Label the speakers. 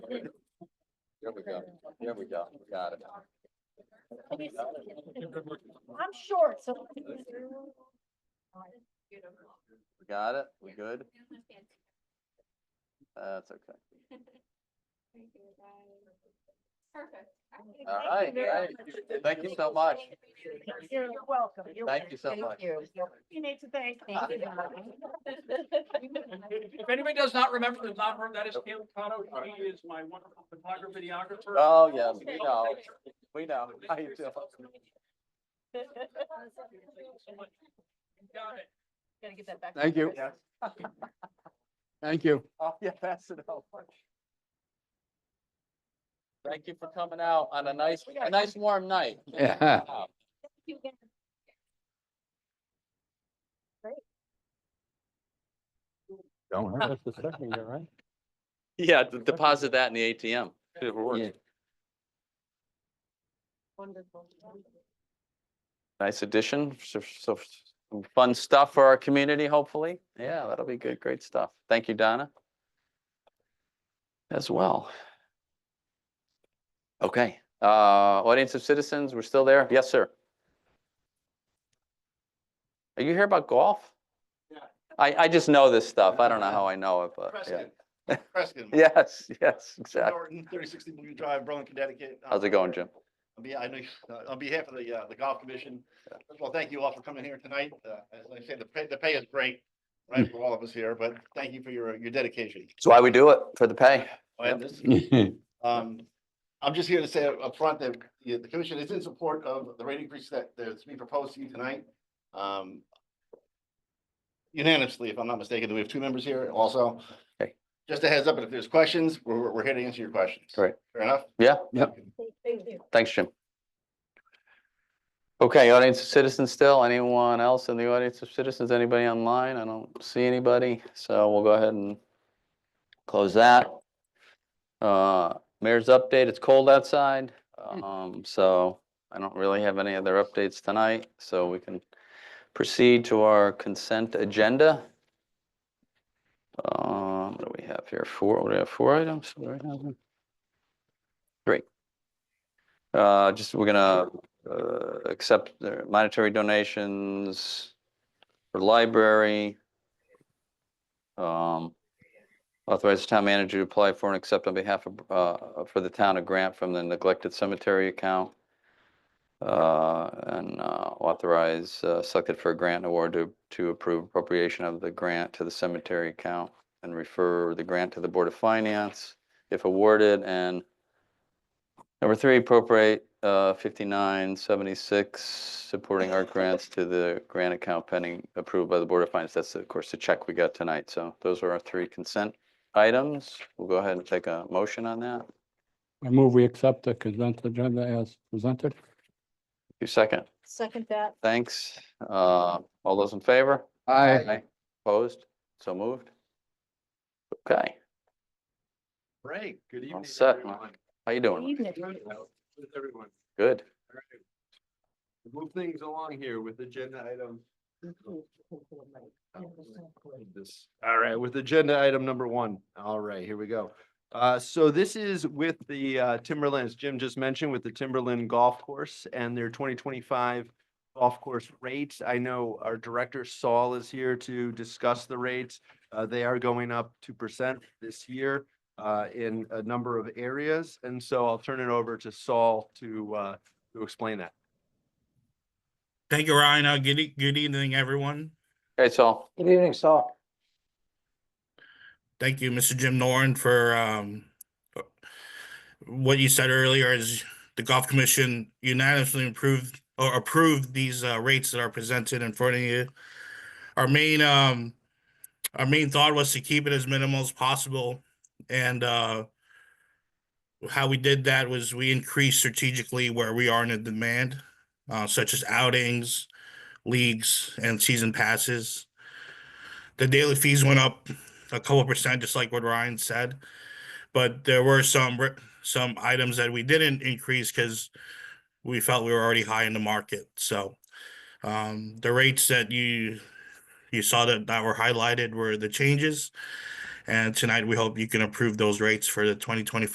Speaker 1: go. There we go. We Got it.
Speaker 2: I'm short, so.
Speaker 1: We Got it. We good? That's okay.
Speaker 3: Perfect.
Speaker 1: All
Speaker 2: Thank you
Speaker 1: right,
Speaker 2: very
Speaker 1: right.
Speaker 2: much.
Speaker 1: Thank you so much.
Speaker 2: You're welcome. You're
Speaker 1: Thank you so
Speaker 2: welcome.
Speaker 1: much.
Speaker 2: Thank You You need to thank.
Speaker 1: Thank you.
Speaker 4: If anybody does not remember the number, that is Cam Cotto. He is my wonderful photographer, videographer.
Speaker 1: Oh, yes, we know. We know. How you doing?
Speaker 4: Got it.
Speaker 2: Gotta get that back.
Speaker 5: Thank you.
Speaker 1: Yes.
Speaker 5: Thank you.
Speaker 1: Oh, yeah, pass it out. Thank you for coming out on a nice, a nice warm night.
Speaker 5: Yeah.
Speaker 1: Wow.
Speaker 5: Don't hurt us the second year, right?
Speaker 1: Yeah, d- deposit that in the ATM. See if it works.
Speaker 5: Yeah.
Speaker 2: Wonderful.
Speaker 1: Nice addition, so, so some fun stuff for our community, hopefully. Yeah, that'll be good, great stuff. Thank you, Donna. As well. Okay, uh, audience of citizens, we're still there? Yes, sir. Are you here about golf?
Speaker 4: Yeah.
Speaker 1: I, I just know this stuff. I don't know how I know it, but, yeah.
Speaker 6: Preston. Preston.
Speaker 1: Yes, yes, exactly.
Speaker 6: Norton, thirty sixty Blue Drive, Berlin, Connecticut.
Speaker 1: How's it going, Jim?
Speaker 6: On behalf, I know, you- uh, on behalf of the, uh, the golf commission, first of all, thank you all for coming here tonight. Uh, as I said, the pay, the pay is great, right, for all of us here, but thank you for your, your dedication.
Speaker 1: That's why we do it, for the pay.
Speaker 6: And this, um, I'm just here to say up front that the, the commission is in support of the rate increase that, that's being proposed to you tonight. Um, unanimously, if I'm not mistaken, we have two members here also.
Speaker 1: Okay.
Speaker 6: Just a heads up, if there's questions, we're, we're- we're here to answer your questions.
Speaker 1: Great.
Speaker 6: Fair enough?
Speaker 1: Yeah,
Speaker 2: Thank you.
Speaker 1: Thanks, Jim. Okay, audience of citizens still, anyone else in the audience of citizens, anybody online? I don't see anybody, so we'll go ahead and close that. Uh, mayor's update, it's cold outside, um, so I don't really have any other updates tonight, so we can proceed to our consent agenda. Um, what do we have here? Four, what do we have, four items? What do we have? Uh, just, we're gonna, uh, accept the monetary donations for library. Um, authorize the town manager to apply for and accept on behalf of, uh, for the town a grant from the neglected cemetery account. Uh, and, uh, authorize, uh, selected for a grant award to, to approve appropriation of the grant to the cemetery account and refer the grant to the Board of Finance if awarded and Number three, appropriate uh, fifty-nine seventy-six, supporting art grants to the grant account pending approved by the Board of Finance. That's, of course, the check we got tonight. So those are our three consent items. We'll go ahead and take a motion on that.
Speaker 5: I move we accept the consent agenda as presented.
Speaker 1: Your second,
Speaker 2: Second that.
Speaker 1: thanks. Uh, All those in favor?
Speaker 5: Aye.
Speaker 1: Opposed? So moved? Okay,
Speaker 6: Great, good evening.
Speaker 1: set, Mike.
Speaker 6: everyone.
Speaker 1: how you doing?
Speaker 2: Evening.
Speaker 7: With everyone.
Speaker 1: Good.
Speaker 7: All right. We'll Move things along here with agenda item. This- All right, with agenda item number one. All right, here we go. Uh, so this is with the uh, Timberlands, Jim just mentioned with the Timberland Golf Course and their twenty twenty-five golf course rates. I know our director Saul is here to discuss the rates. Uh, they are going up two percent this year uh, in a number of areas. And so I'll turn it over to Saul to, uh, to explain that.
Speaker 8: Thank you, Ryan. Uh, good, e- good evening, everyone.
Speaker 1: Okay, so,
Speaker 5: Good evening, Saul.
Speaker 8: Thank you, Mr. Jim Noren, for um, what you said earlier is the Golf Commission unanimously approved or approved these uh, rates that are presented in front of you. Our main um, our main thought was to keep it as minimal as possible, and uh, how we did that was we increased strategically where we are in the demand, uh, such as outings, leagues, and season passes. The daily fees went up a couple percent, just like what Ryan said. But there were some re- some items that we didn't increase because we felt we were already high in the market. So um, the rates that you you saw that that were highlighted were the changes, and tonight we hope you can approve those rates for the 2025.